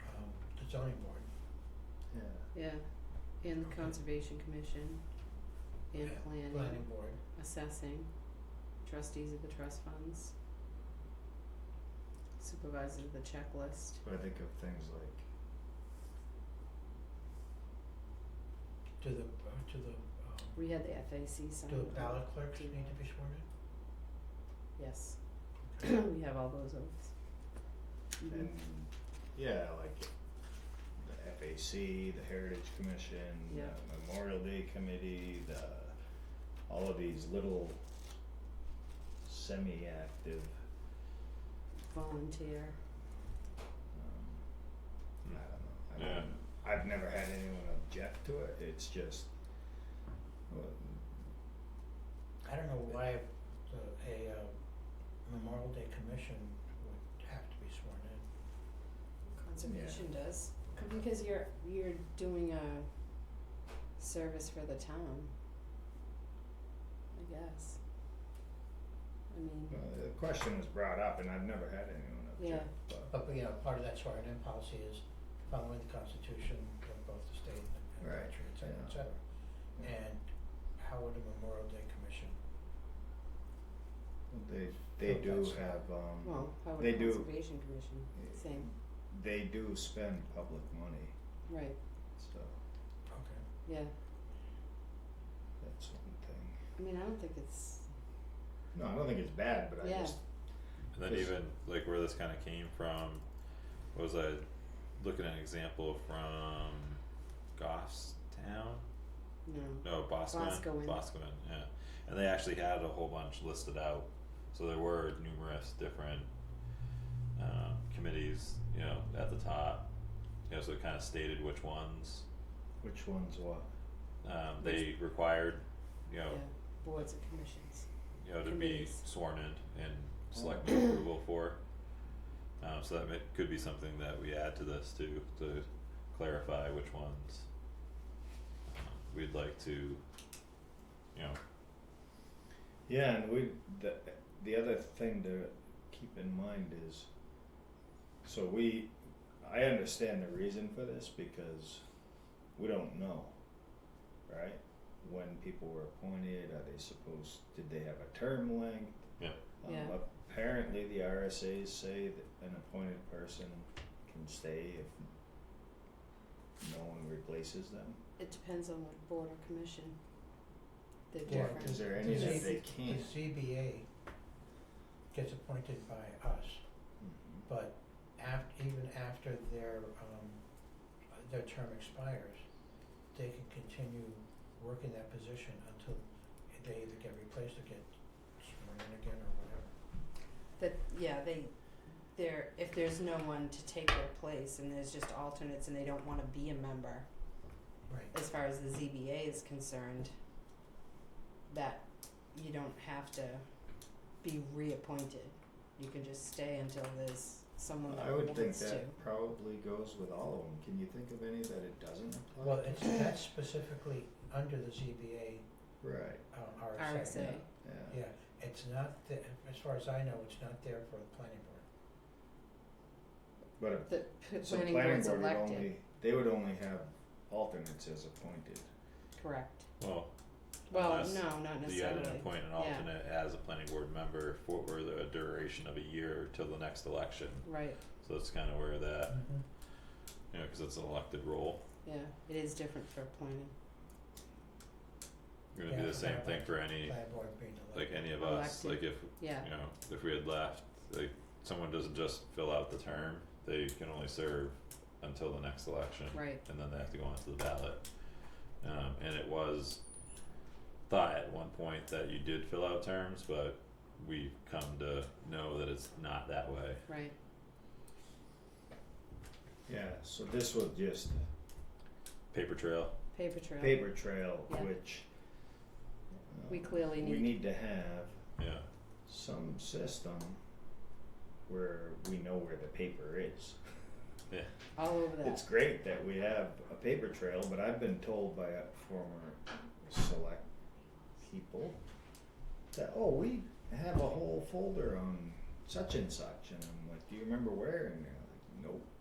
um, zoning board. yeah. yeah, and the conservation commission, and Yeah, planning, Planning board, assessing, trustees of the trust funds. Supervisor of the checklist, But I think of things like, to the, uh, to the, we had the FAC sign. um, do the ballot clerks need to be sworn Yes, in? Okay. we have all those oaths. Mhm. and, yeah, like the FAC, the Heritage Commission, Yeah. the Memorial Day Committee, the, all of these little semi-active, Volunteer, um, I don't know, I Yeah. don't, I've never had anyone object to it, it's just, well, I don't know why the, a, uh, Memorial Day commission would have to be sworn in. conservation does, because you're, you're doing a service for the town. I guess. I mean, well, the question was brought up and I've never had anyone Yeah. object, but. But, you know, part of that sworn in policy is following the constitution of both the state and the Right, country, et cetera, et yeah. cetera. Yeah. And how would a Memorial Day commission, They they So do that's- have um well, how would they a do- conservation commission, same, they do spend public money, right, so okay, yeah, that's one thing. I mean, I don't think it's, No, I don't think it's bad, but I Yeah. just And then Just- even like where this kind of came from was I looking at an example from Goffstown? no, No, Boscoin. Boscawen. yeah. And they actually had a whole bunch listed out. So there were numerous different um, committees, you know, at the top. You know, so it kind of stated which ones which one's what? um, they required, you know, yeah, boards and commissions, you know, to be Committees. sworn in and select approval for. Um, so that may, could be something that we add to this too, to clarify which ones um, we'd like to, you know, Yeah, and we the the other thing to keep in mind is so we I understand the reason for this because we don't know, right? When people were appointed, are they supposed did they have a term length? Yeah. Um, Yeah. Apparently, the RSA's say that an appointed person can stay if no one replaces them. it depends on what board or commission, they're Yeah, different. Is there any that they the can't? CBA gets appointed by us, Mhm. but af- even after their, um, their term expires, they can continue working that position until they either get replaced or get sworn in again or whatever. That, yeah, they, they're, if there's no one to take their place and there's just alternates and they don't wanna be a member, Right. as far as the ZBA is concerned, that you don't have to be reappointed. You can just stay until there's someone Mm-hmm. I that would think wants to. that probably goes with all of them. Can you think of any that it doesn't apply? Well, to? it's, that's specifically under the ZBA, Right, uh, RSA. RSA. Say. yeah. Yeah, it's not, the- as far as I know, it's not there for the planning board. But The if, p- so planning planning board's board would elected, only, they would only have alternates as appointed. correct. well, Well, Unless no, not you had necessarily. to appoint an Yeah. alternate as a planning board member for or the a duration of a year till the next election. Right, So that's kind of where that, you know, because it's an elected role. yeah, it is different for planning, Going to Yeah, be the same thing for any, Planning board being elected. like any of us. Elected. Like if yeah, you know, if we had left, like someone doesn't just fill out the term, they can only serve until the next election. right, And then they have to go onto the ballot. Um, and it was thought at one point that you did fill out terms, but we've come to know that it's not that way. right, Yeah, so this was just Paper trail, paper trail. paper trail, Yeah. which uh, We clearly we need- need to have yeah, some system where we know where the paper is. All over that. It's great that we have a paper trail, but I've been told by a former select people that, oh, we have a whole folder on such and such. And I'm like, do you remember where? And they're like, nope.